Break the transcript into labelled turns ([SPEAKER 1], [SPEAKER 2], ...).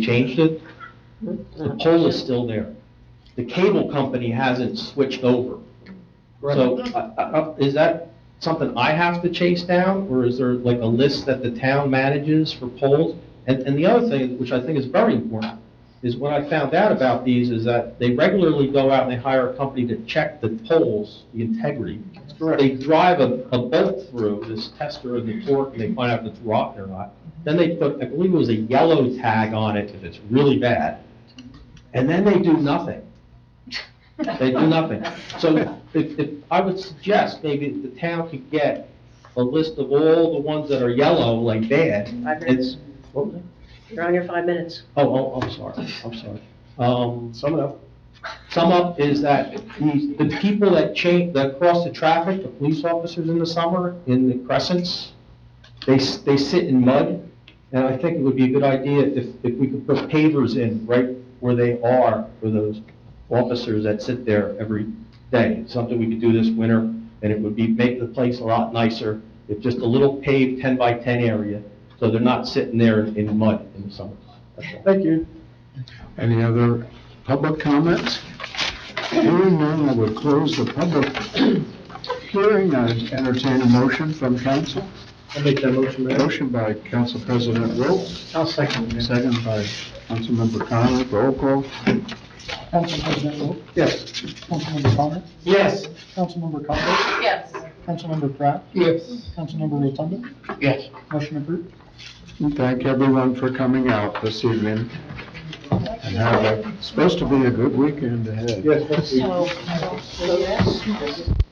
[SPEAKER 1] changed it, the pole is still there. The cable company hasn't switched over. So, I- I- I- is that something I have to chase down, or is there like a list that the town manages for poles? And, and the other thing, which I think is very important, is what I found out about these is that they regularly go out and they hire a company to check the poles, the integrity. They drive a, a bolt through this tester of the torque, and they find out if it's rotten or not. Then they put, I believe it was a yellow tag on it if it's really bad. And then they do nothing. They do nothing. So if, if, I would suggest maybe the town could get a list of all the ones that are yellow, like bad.
[SPEAKER 2] Five
[SPEAKER 1] It's, what was it?
[SPEAKER 2] You're on your five minutes.
[SPEAKER 1] Oh, oh, I'm sorry, I'm sorry. Um,
[SPEAKER 3] Sum it up.
[SPEAKER 1] sum up is that the, the people that change, that cross the traffic, the police officers in the summer, in the crescents, they, s- they sit in mud, and I think it would be a good idea if, if we could put pavers in right where they are for those officers that sit there every day. Something we could do this winter, and it would be, make the place a lot nicer, if just a little paved ten by ten area, so they're not sitting there in mud in the summer.
[SPEAKER 3] Thank you.
[SPEAKER 4] Any other public comments? Hearing none, I would close the public hearing. I entertain a motion from council.
[SPEAKER 3] I'll make that motion, Mayor.
[SPEAKER 4] Motion by Council President Wilt,
[SPEAKER 3] I'll second it.
[SPEAKER 4] second by Councilmember Connor. Roll call.
[SPEAKER 5] Council President Wu,
[SPEAKER 3] Yes.
[SPEAKER 5] Councilmember Connor,
[SPEAKER 3] Yes.
[SPEAKER 5] Councilmember Conville,
[SPEAKER 2] Yes.
[SPEAKER 5] Councilmember Pratt,
[SPEAKER 3] Yes.
[SPEAKER 5] Councilmember Rotunda,
[SPEAKER 3] Yes.
[SPEAKER 5] motion approved.
[SPEAKER 4] And Thank everyone for coming out this evening. And have a, supposed to be a good weekend ahead.
[SPEAKER 3] Yes, thank you.
[SPEAKER 2] So,